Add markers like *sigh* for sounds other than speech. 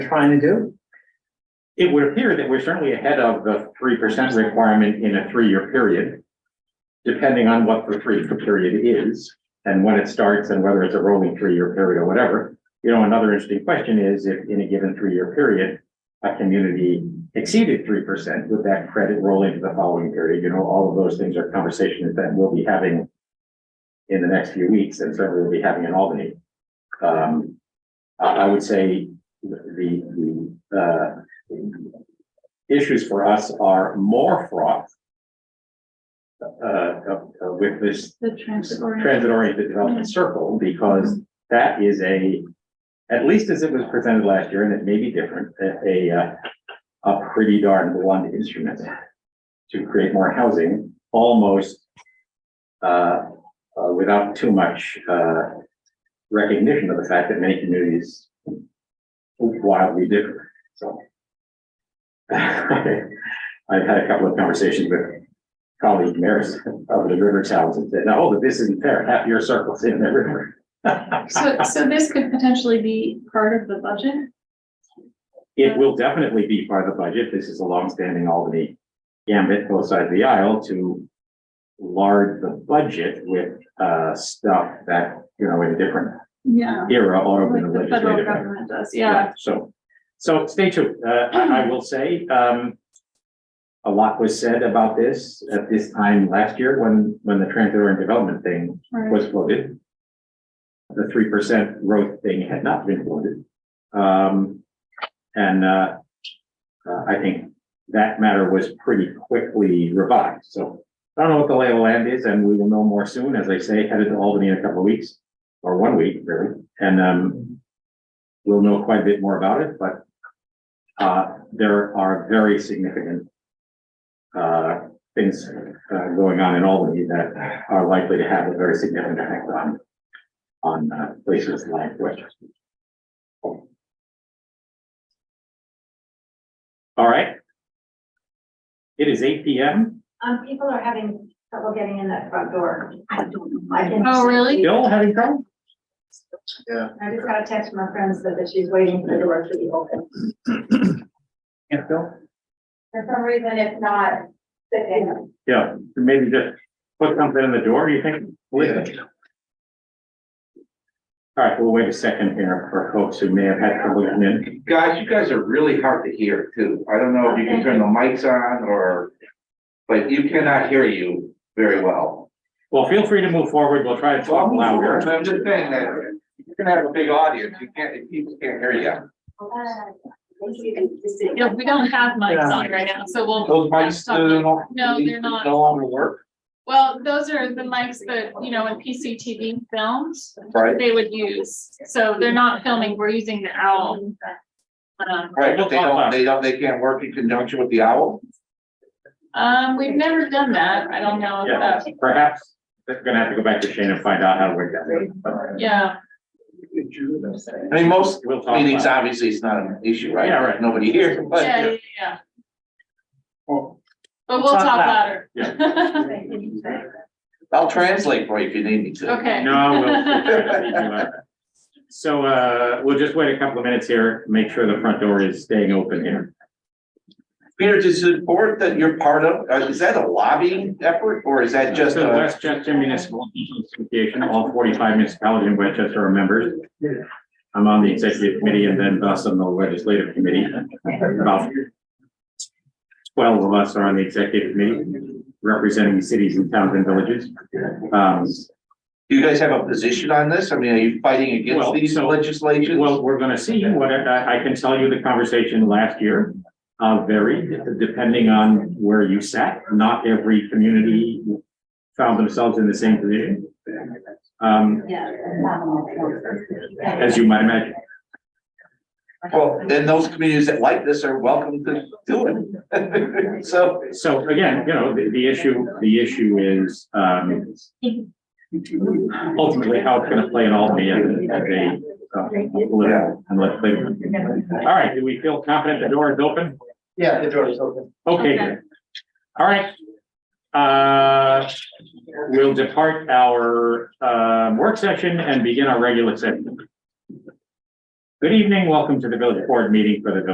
trying to do? It would appear that we're certainly ahead of the three percent requirement in a three-year period. Depending on what the three-year period is and when it starts and whether it's a rolling three-year period or whatever. You know, another interesting question is if in a given three-year period, a community exceeded three percent, would that credit roll into the following period? You know, all of those things are conversations that we'll be having in the next few weeks and certainly we'll be having in Albany. Um, I, I would say the, the, uh, issues for us are more fraught uh, uh, with this The transit oriented. transit-oriented development circle, because that is a, at least as it was presented last year, and it may be different, a, a, uh, a pretty darn blunt instrument to create more housing, almost uh, uh, without too much, uh, recognition of the fact that many communities wildly differ, so. *laughs* I've had a couple of conversations with colleague mayors of the river towns and said, now, hold it, this isn't fair, half your circle's in the river. *laughs* So, so this could potentially be part of the budget? It will definitely be part of the budget. This is a longstanding Albany gambit, both sides of the aisle, to lard the budget with, uh, stuff that, you know, in a different Yeah. era ought to be Um, Like the federal legislative. government does, Right, yeah. So, so stay tuned. Uh, I I will say, um, a lot was said about this at this time last year when, when the transit and development thing Right. was voted. The three percent growth thing had not been voted. Um, and, uh, uh, I think that matter was pretty quickly revised, so I don't know what the lay of the land is, and we will know more soon, as I say, headed to Albany in a couple of weeks, or one week, really, and, um, we'll know quite a bit more about it, but, uh, there are very significant, uh, things uh, going on in Albany that are likely to have a very significant effect on, on uh, places like Westchester. All right. It is eight P M. Um, people are having trouble getting in that front door. I don't know. I can. Oh, really? Bill, having trouble? I just got a text from my friend said that she's waiting for the door to be open. Yeah, Bill? For some reason, it's not sitting. Yeah, maybe just put something in the door, you think? All right, we'll wait a second here for folks who may have had trouble getting in. Guys, you guys are really hard to hear too. I don't know if you can turn the mics on or, but you cannot hear you very well. Well, feel free to move forward. We'll try to So talk I'm louder. I'm just saying that you can have a big audience. You can't, if people can't hear you. Yeah, we don't have mics on right now, so we'll, Those mics, uh, they don't- No, they're not. No longer work, well, those are the mics that, you know, in PCTV films, right? they would use. So they're not filming, we're using the owl. Um, Right, but they don't, they don't, they can't work in conjunction with the owl? Um, we've never done that. I don't know if Yeah, that, perhaps they're gonna have to go back to Shane and find out how to work that. yeah, I mean, most We'll talk meetings, about obviously, it's not an issue, right? Yeah, right. Nobody hears, but. yeah, yeah, yeah. But we'll talk louder. I'll translate for you if you need me to. *laughs* Okay. it. No, we'll- *laughs* we'll. try to speak louder. So, uh, we'll just wait a couple of minutes here, make sure the front door is staying open here. Peter, does the board that you're part of, uh, is that a lobbying effort or is that just uh, So a? Westchester Municipal Association, all forty-five municipalities in Westchester are members. I'm on the executive committee and then thus on the legislative committee. About twelve of us are on the executive committee, representing cities and towns and villages. Um, Do you guys have a position on this? I mean, are you fighting against Well, these so- legislations? Well, we're gonna see what, I, I can tell you the conversation last year, uh, varied depending on where you sat. Not every community found themselves in the same position. Um, as you might imagine. Well, then those communities that like this are welcome to do it. *laughs* So, So again, you know, the, the issue, the issue is, um, ultimately how it's gonna play in Albany and the, uh, political and legislative. All right, do we feel confident the door is open? Yeah, the door is open. Okay, Okay. good. All right. Uh, we'll depart our, uh, work session and begin our regular session. Good evening, welcome to the village board meeting for the village